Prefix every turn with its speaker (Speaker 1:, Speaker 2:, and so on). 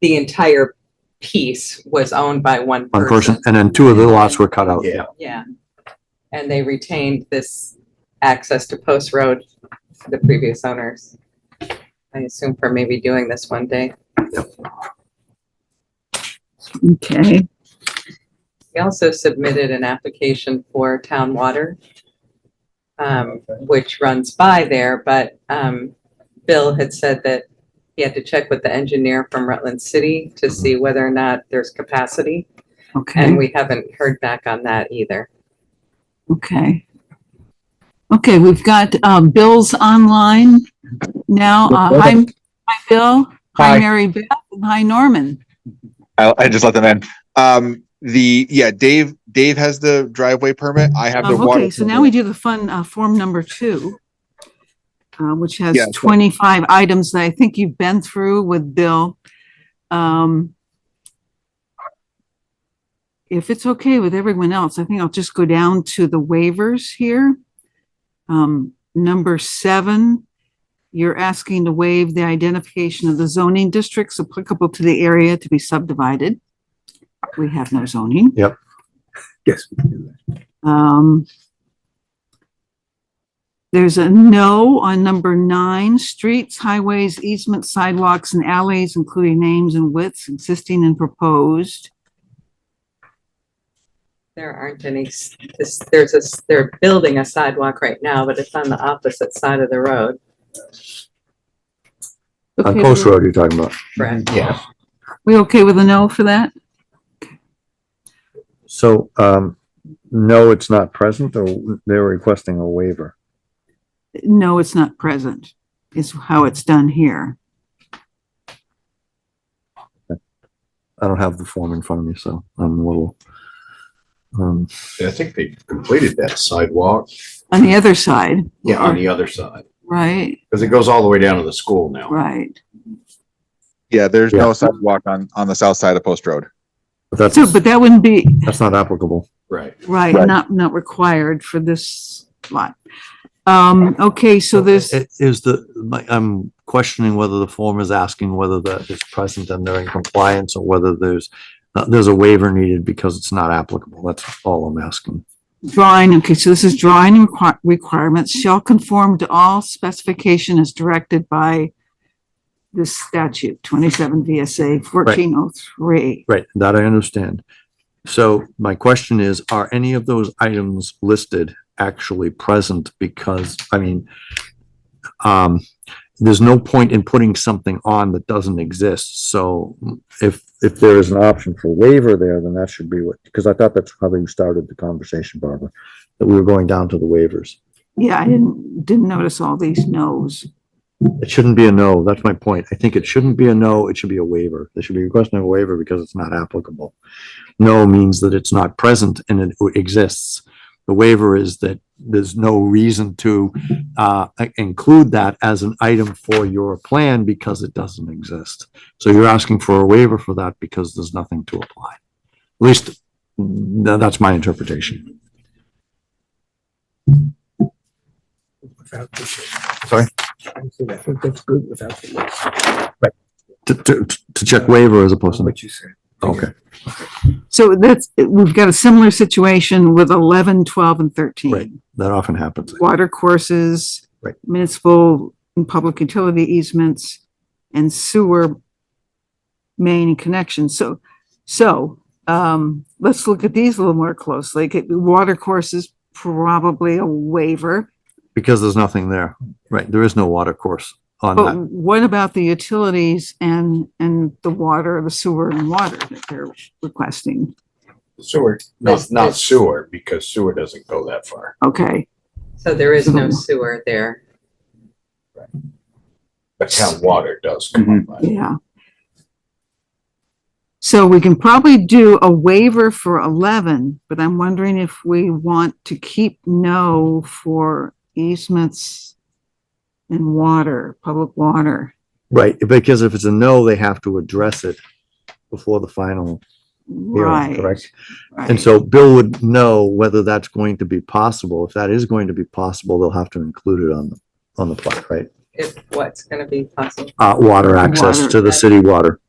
Speaker 1: the entire piece was owned by one
Speaker 2: one person,
Speaker 1: person.
Speaker 2: and then two of the lots were cut out.
Speaker 3: Yeah.
Speaker 1: Yeah. And they retained this access to Post Road, the previous owners. I assume for maybe doing this one day.
Speaker 4: Okay,
Speaker 1: We also submitted an application for town water, um, which runs by there, but, um, Bill had said that he had to check with the engineer from Rutland City to see whether or not there's capacity,
Speaker 4: okay,
Speaker 1: and we haven't heard back on that either.
Speaker 4: okay. Okay, we've got, um, Bill's online now. Uh, hi, hi, Bill. Hi,
Speaker 5: Hi.
Speaker 4: Mary Beth. and Hi, Norman.
Speaker 5: I, I just let them in. Um, the, yeah, Dave, Dave has the driveway permit. I have the
Speaker 4: Um,
Speaker 5: water.
Speaker 4: okay, so now we do the fun, uh, form number two, uh, which has
Speaker 5: Yeah, so-
Speaker 4: twenty-five items that I think you've been through with Bill. Um, if it's okay with everyone else, I think I'll just go down to the waivers here. Um, number seven, you're asking to waive the identification of the zoning districts applicable to the area to be subdivided. We have no zoning.
Speaker 3: Yes.
Speaker 4: Um, there's a no on number nine, streets, highways, easements, sidewalks, and alleys, including names and widths existing and proposed.
Speaker 1: There aren't any, s- this, there's a, s- they're building a sidewalk right now, but it's on the opposite side of the road,
Speaker 2: On
Speaker 4: Okay,
Speaker 2: Post Road you're talking about.
Speaker 1: correct?
Speaker 3: Yeah.
Speaker 4: We okay with a no for that?
Speaker 2: So, um, no, it's not present, or they're requesting a waiver.
Speaker 4: No, it's not present, is how it's done here.
Speaker 2: I don't have the form in front of me, so I'm a little. Um,
Speaker 3: I think they completed that sidewalk,
Speaker 4: On the other side,
Speaker 3: yeah, on the other side,
Speaker 4: right,
Speaker 3: because it goes all the way down to the school now.
Speaker 4: right.
Speaker 5: Yeah, there's
Speaker 2: Yeah.
Speaker 5: no sidewalk on, on the south side of Post Road.
Speaker 2: but that's,
Speaker 4: So, but that wouldn't be,
Speaker 2: that's not applicable.
Speaker 3: Right.
Speaker 4: right,
Speaker 5: Right.
Speaker 4: not, not required for this lot. Um, okay, so there's,
Speaker 6: It Is the, my, I'm questioning whether the form is asking whether that is present and they're in compliance or whether there's, uh, there's a waiver needed because it's not applicable. That's all I'm asking.
Speaker 4: Drawing, okay, so this is drawing requi- requirements shall conform to all specification as directed by this statute, twenty-seven VSA fourteen oh three.
Speaker 2: Right. That I understand. So my question is, are any of those items listed actually present? Because, I mean, um, there's no point in putting something on that doesn't exist. So if, if there is an option for waiver there, then that should be what, because I thought that's how we started the conversation, Barbara, that we were going down to the waivers.
Speaker 4: Yeah, I didn't, didn't notice all these no's.
Speaker 2: It shouldn't be a no. That's my point. I think it shouldn't be a no. It should be a waiver. There should be a requesting of a waiver because it's not applicable. No means that it's not present and it exists. The waiver is that there's no reason to uh include that as an item for your plan because it doesn't exist. So you're asking for a waiver for that because there's nothing to apply. At least, tha- that's my interpretation. Sorry?
Speaker 7: I think that's good without the list.
Speaker 2: To to to check waiver as opposed to,
Speaker 7: What you said.
Speaker 2: okay.
Speaker 4: So that's, we've got a similar situation with 11, 12, and
Speaker 2: Right.
Speaker 4: thirteen.
Speaker 2: That often happens.
Speaker 4: Water courses.
Speaker 2: Right.
Speaker 4: Municipal and public utility easements and sewer main connections. So, so, um, let's look at these a little more closely. Okay, Water courses, probably a waiver.
Speaker 2: Because there's nothing there, right? There is no water course on
Speaker 4: But
Speaker 2: that.
Speaker 4: what about the utilities and, and the water, the sewer and water that they're requesting?
Speaker 3: Sewer,
Speaker 1: That's-
Speaker 3: not, not
Speaker 1: that's-
Speaker 3: sewer, because sewer doesn't go that far.
Speaker 4: Okay,
Speaker 1: So there is no sewer there.
Speaker 3: But town water does come up. by.
Speaker 4: yeah. So we can probably do a waiver for 11, but I'm wondering if we want to keep no for easements and water, public water.
Speaker 2: Right, because if it's a no, they have to address it before the final hearing,
Speaker 4: Right.
Speaker 2: correct? And
Speaker 4: right.
Speaker 2: so Bill would know whether that's going to be possible. If that is going to be possible, they'll have to include it on, the on the plot, right?
Speaker 1: If what's gonna be possible.
Speaker 2: Uh, water access
Speaker 4: Water.
Speaker 2: to the city water.